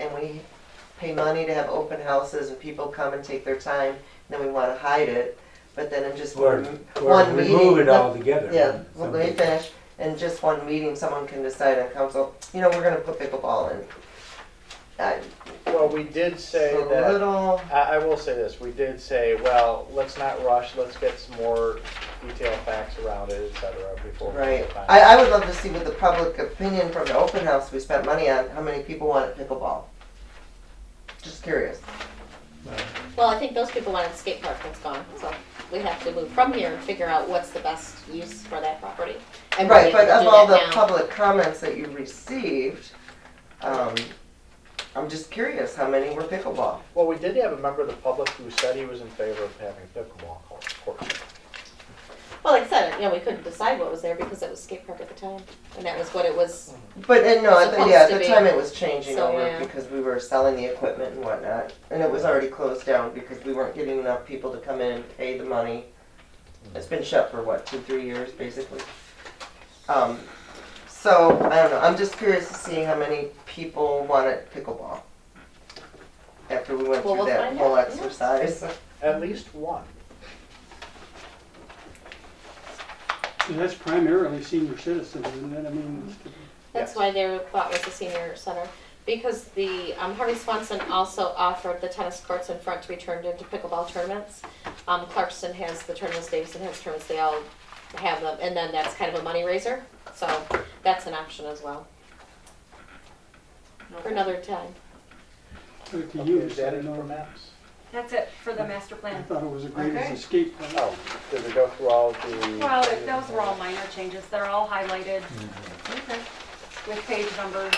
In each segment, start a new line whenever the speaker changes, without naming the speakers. and we pay money to have open houses and people come and take their time, then we wanna hide it, but then in just
Or,
one,
or
one meeting.
remove it
let-
altogether.
Yeah, well, let me
Something.
finish, in just one meeting, someone can decide on council, you know, we're gonna put pickleball in. I-
Well, we did say
A
that,
little,
I, I will say this, we did say, well, let's not rush, let's get some more detailed facts around it, et cetera, before. we
right,
define
I,
it.
I would love to see what the public opinion from the open house we spent money on, how many people wanted pickleball? Just curious.
Well, I think those people wanted the skate park that's gone, so we have to move from here and figure out what's the best use for that property. And we're
Right,
able
but
to
of
do
all the
that now.
public comments that you received, um, I'm just curious how many were pickleball.
Well, we did have a member of the public who said he was in favor of having pickleball court- courts.
Well, like I said, you know, we couldn't decide what was there because it was skate park at the time, and that was what it was.
But and no, at the, yeah, at the
Supposed to be.
time it was changing
So,
over
yeah.
because we were selling the equipment and whatnot, and it was already closed down because we weren't getting enough people to come in and pay the money. It's been shut for what two, three years basically. Um, so I don't know. I'm just curious to see how many people wanted pickleball after we went
Well,
through
we'll
that
find
whole
out, yeah.
exercise.
At least one.
And that's primarily senior citizens, isn't it? I mean,
That's
Yes.
why their thought was the senior center, because the um, Harvey Swanson also offered the tennis courts in front to be turned into pickleball tournaments. Um, Clarkston has the tournaments, Davidson has tournaments. They all have them, and then that's kind of a money raiser. So that's an option as well for another time.
it's up to
Okay,
you.
Is
so I
that it
don't
for
know.
maps?
That's it for the master
I
plan.
thought it was agreed as
Okay.
a skate park.
Oh, did we go through all the?
Well, th- those were all minor changes, they're all highlighted with page numbers.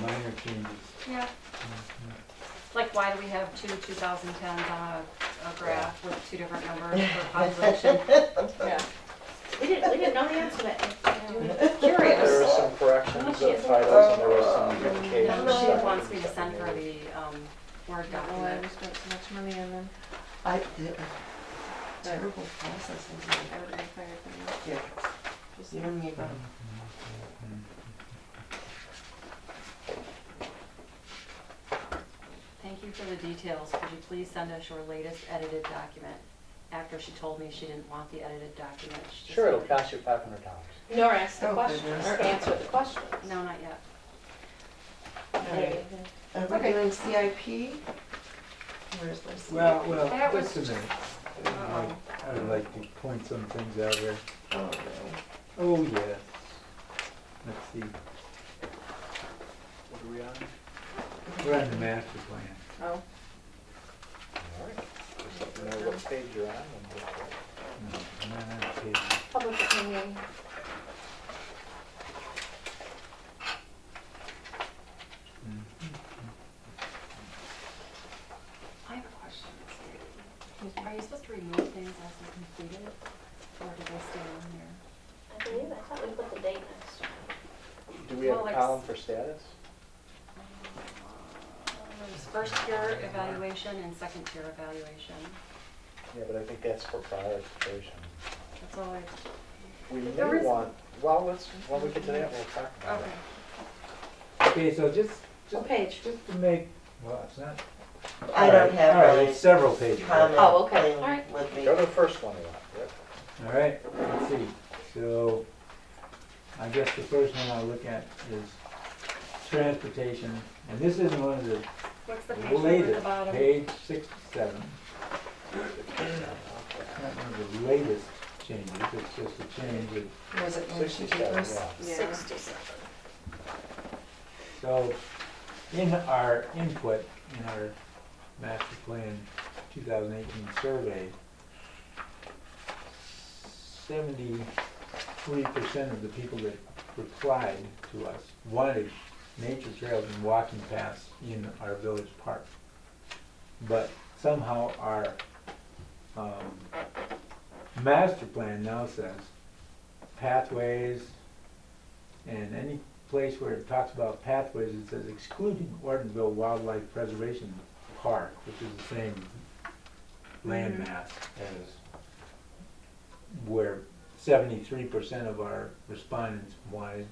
Minor changes.
Yeah. Like why do we have two 2010s on a- a graph with two different numbers for population?
Yeah. We didn't, we didn't know the answer to that.
There were
Curious.
some corrections of titles and there were some
She
duplications.
wants me to send her the um, Word document.
spent so much money on them.
I did. Terrible process. wasn't
I would have been fired from you.
it? Yeah. Just you and me, bro.
Mm-hmm.
Thank you for the details, could you please send us your latest edited document? After she told me she didn't want the edited document. she just
Sure, it'll
wanted-
cost you five hundred dollars.
Nor asked the
Oh,
question,
goodness.
or answered the question.
No, not yet.
Alright. Are we
Okay.
doing CIP? Where's my CIP?
Well, well,
That was-
just a minute. I'd
Uh-oh.
like- I'd like to point some things out here.
Oh, no.
Oh, yes. Let's see.
What are we on?
We're on the master plan.
Oh,
All right. Just let me know what page you're on and what-
No, I'm not on page-
public opinion.
Hmm.
I have a question. Are you supposed to remove things as they're completed, or do they stay on there?
I believe, I thought we put the date next.
Do we have
Well,
a
it's-
column for status?
There's first tier evaluation and second tier evaluation.
Yeah, but I think that's for prioritization.
That's all I,
We
There
may
is-
want, well, let's, when we get to that, we'll talk about
okay.
it.
Okay, so just,
What page?
just to make, well, it's not.
I don't have
All right,
my
it's several pages.
comment
Oh, okay.
thing
Alright.
with me.
Go to the first one you want, yep.
All right, let's see, so, I guess the first one I'll look at is transportation, and this is one of the
What's the page number at the
latest,
bottom?
page sixty-seven. Not one of the latest changes, it's just a change of,
Was it when she gave
Sixty-seven,
us?
yeah.
Sixty-seven.
so, in our input, in our master plan two thousand eighteen survey, seventy-three percent of the people that replied to us wanted nature trails and walking paths in our village park. But somehow our, um, master plan now says pathways and any place where it talks about pathways, it says excluding Ortonville Wildlife Preservation Park, which is the same landmass as where seventy-three percent of our respondents wanted